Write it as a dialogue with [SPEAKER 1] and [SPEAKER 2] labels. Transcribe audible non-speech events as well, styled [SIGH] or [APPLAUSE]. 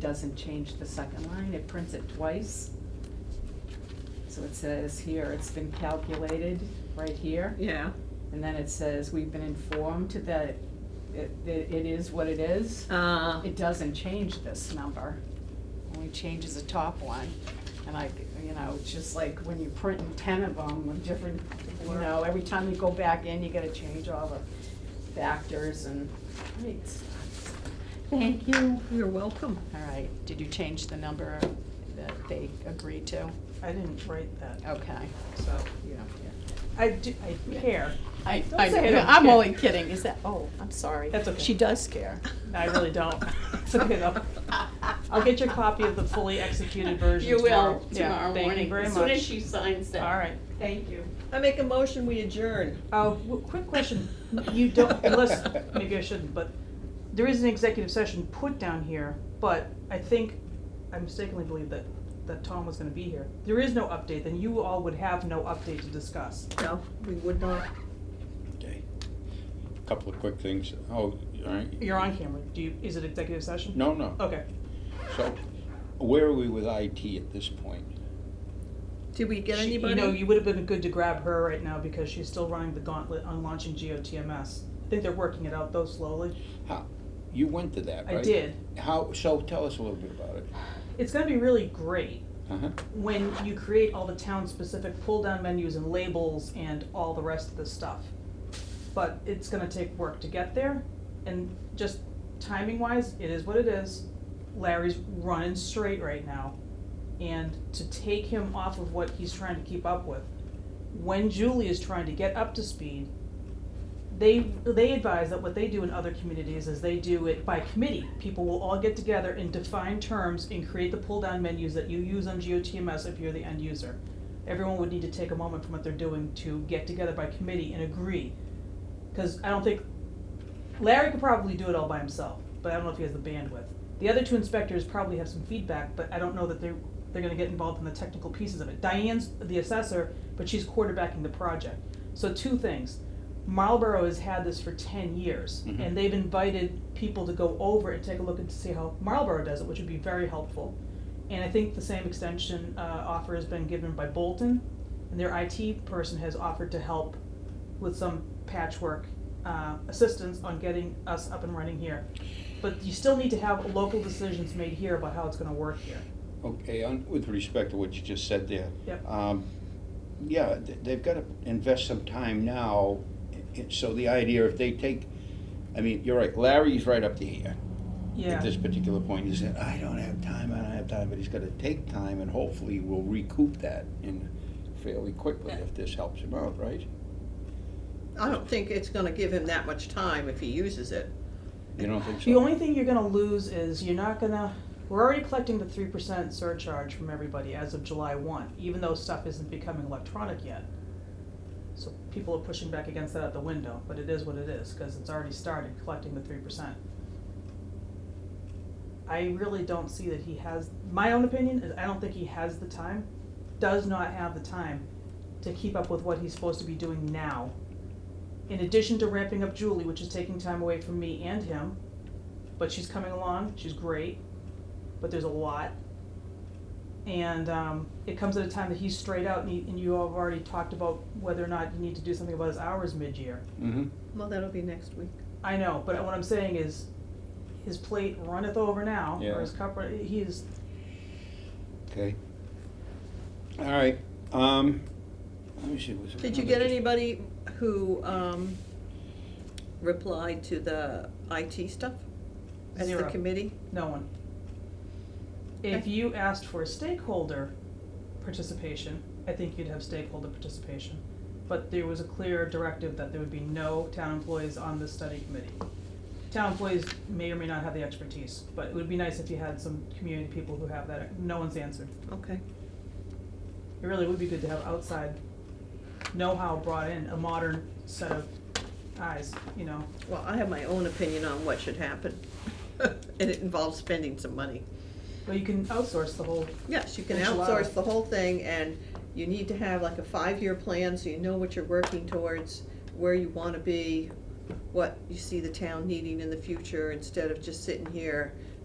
[SPEAKER 1] doesn't change the second line, it prints it twice. So it says here, it's been calculated, right here,
[SPEAKER 2] Yeah,
[SPEAKER 1] and then it says, we've been informed that it, it it is what it is.
[SPEAKER 2] uh,
[SPEAKER 1] It doesn't change this number, only changes the top one. And I, you know, it's just like when you're printing ten of them with different, you know, every time you go back in, you gotta change all the factors and, great. Thank you.
[SPEAKER 2] you're welcome.
[SPEAKER 1] All right, did you change the number that they agreed to?
[SPEAKER 3] I didn't write that,
[SPEAKER 1] Okay.
[SPEAKER 3] so,
[SPEAKER 1] You don't care.
[SPEAKER 3] I do, I care,
[SPEAKER 1] I,
[SPEAKER 3] Don't
[SPEAKER 1] I,
[SPEAKER 3] say I don't
[SPEAKER 1] I'm
[SPEAKER 3] care.
[SPEAKER 1] only kidding, is that, oh, I'm sorry.
[SPEAKER 3] That's okay.
[SPEAKER 1] She does care.
[SPEAKER 3] I really don't, [LAUGHS] it's okay though. I'll get your copy of the fully executed version
[SPEAKER 1] [LAUGHS] You
[SPEAKER 3] tomorrow.
[SPEAKER 1] will,
[SPEAKER 3] Yeah,
[SPEAKER 1] tomorrow
[SPEAKER 3] thank you
[SPEAKER 1] morning,
[SPEAKER 3] very
[SPEAKER 1] as soon
[SPEAKER 3] much.
[SPEAKER 1] as she signs that.
[SPEAKER 3] All right,
[SPEAKER 1] Thank you.
[SPEAKER 2] I make a motion, we adjourn.
[SPEAKER 3] uh, w- quick question,
[SPEAKER 1] [LAUGHS]
[SPEAKER 3] you don't, unless, maybe I shouldn't, but there is an executive session put down here, but I think, I mistakenly believe that, that Tom was gonna be here. There is no update, then you all would have no update to discuss.
[SPEAKER 2] No, we would not.
[SPEAKER 4] Okay. Couple of quick things. Oh, all right.
[SPEAKER 3] You're on camera, do you, is it executive session?
[SPEAKER 4] No, no.
[SPEAKER 3] Okay,
[SPEAKER 4] So where are we with IT at this point?
[SPEAKER 2] Did we get
[SPEAKER 3] She-
[SPEAKER 2] anybody?
[SPEAKER 3] You know, you would have been good to grab her right now because she's still running the gauntlet on launching GOTMS. I think they're working it out though slowly.
[SPEAKER 4] How, you went to that,
[SPEAKER 3] I
[SPEAKER 4] right?
[SPEAKER 3] did.
[SPEAKER 4] How, so tell us a little bit about it.
[SPEAKER 3] It's gonna be really great
[SPEAKER 4] Uh-huh.
[SPEAKER 3] when you create all the town-specific pull-down menus and labels and all the rest of the stuff. But it's gonna take work to get there, and just timing-wise, it is what it is. Larry's running straight right now, and to take him off of what he's trying to keep up with, when Julie is trying to get up to speed, they, they advise that what they do in other communities is they do it by committee. People will all get together and define terms and create the pull-down menus that you use on GeoTMS if you're the end user. Everyone would need to take a moment from what they're doing to get together by committee and agree. Cause I don't think, Larry could probably do it all by himself, but I don't know if he has the bandwidth. The other two inspectors probably have some feedback, but I don't know that they're, they're gonna get involved in the technical pieces of it. Diane's the assessor, but she's quarterbacking the project. So two things, Marlboro has had this for ten years,
[SPEAKER 4] Mhm.
[SPEAKER 3] and they've invited people to go over and take a look and to see how Marlboro does it, which would be very helpful. And I think the same extension, uh, offer has been given by Bolton, and their IT person has offered to help with some patchwork uh, assistance on getting us up and running here. But you still need to have local decisions made here about how it's gonna work here.
[SPEAKER 4] Okay, on, with respect to what you just said there.
[SPEAKER 3] Yep.
[SPEAKER 4] Um, yeah, th- they've gotta invest some time now. i- i- So the idea if they take, I mean, you're right, Larry's right up to here.
[SPEAKER 3] Yeah.
[SPEAKER 4] at this particular point, he said, I don't have time, I don't have time, but he's gonna take time and hopefully will recoup that in fairly quickly if this helps him out, right?
[SPEAKER 2] I don't think it's gonna give him that much time if he uses it.
[SPEAKER 4] You don't think so?
[SPEAKER 3] The only thing you're gonna lose is you're not gonna, we're already collecting the three percent surcharge from everybody as of July one, even though stuff isn't becoming electronic yet. So people are pushing back against that at the window, but it is what it is, cause it's already started collecting the three percent. I really don't see that he has, my own opinion is I don't think he has the time, does not have the time to keep up with what he's supposed to be doing now. In addition to ramping up Julie, which is taking time away from me and him, but she's coming along. She's great, but there's a lot. And um, it comes at a time that he's straight out, and, he, and you all have already talked about whether or not you need to do something about his hours mid year.
[SPEAKER 4] Mm-hmm,
[SPEAKER 2] Well, that'll be next week.
[SPEAKER 3] I know, but what I'm saying is his plate runneth over now,
[SPEAKER 4] Yeah.
[SPEAKER 3] or his cup, run- he is,
[SPEAKER 4] okay. All right, um, let me see, was there
[SPEAKER 2] Did you
[SPEAKER 4] another
[SPEAKER 2] get
[SPEAKER 4] dis-
[SPEAKER 2] anybody who, um, replied to the IT stuff? As the
[SPEAKER 3] Zero.
[SPEAKER 2] committee?
[SPEAKER 3] no one. If
[SPEAKER 2] Okay.
[SPEAKER 3] you asked for stakeholder participation, I think you'd have stakeholder participation. But there was a clear directive that there would be no town employees on the study committee. Town employees may or may not have the expertise, but it would be nice if you had some community people who have that, no one's answered.
[SPEAKER 2] Okay.
[SPEAKER 3] It really would be good to have outside know-how brought in, a modern set of eyes, you know?
[SPEAKER 2] Well, I have my own opinion on what should happen. [LAUGHS] And it involves spending some money.
[SPEAKER 3] But you can outsource the whole,
[SPEAKER 2] Yes, you can
[SPEAKER 3] Enchilada.
[SPEAKER 2] outsource the whole thing and you need to have like a five-year plan so you know what you're working towards, where you wanna be, what you see the town needing in the future, instead of just sitting here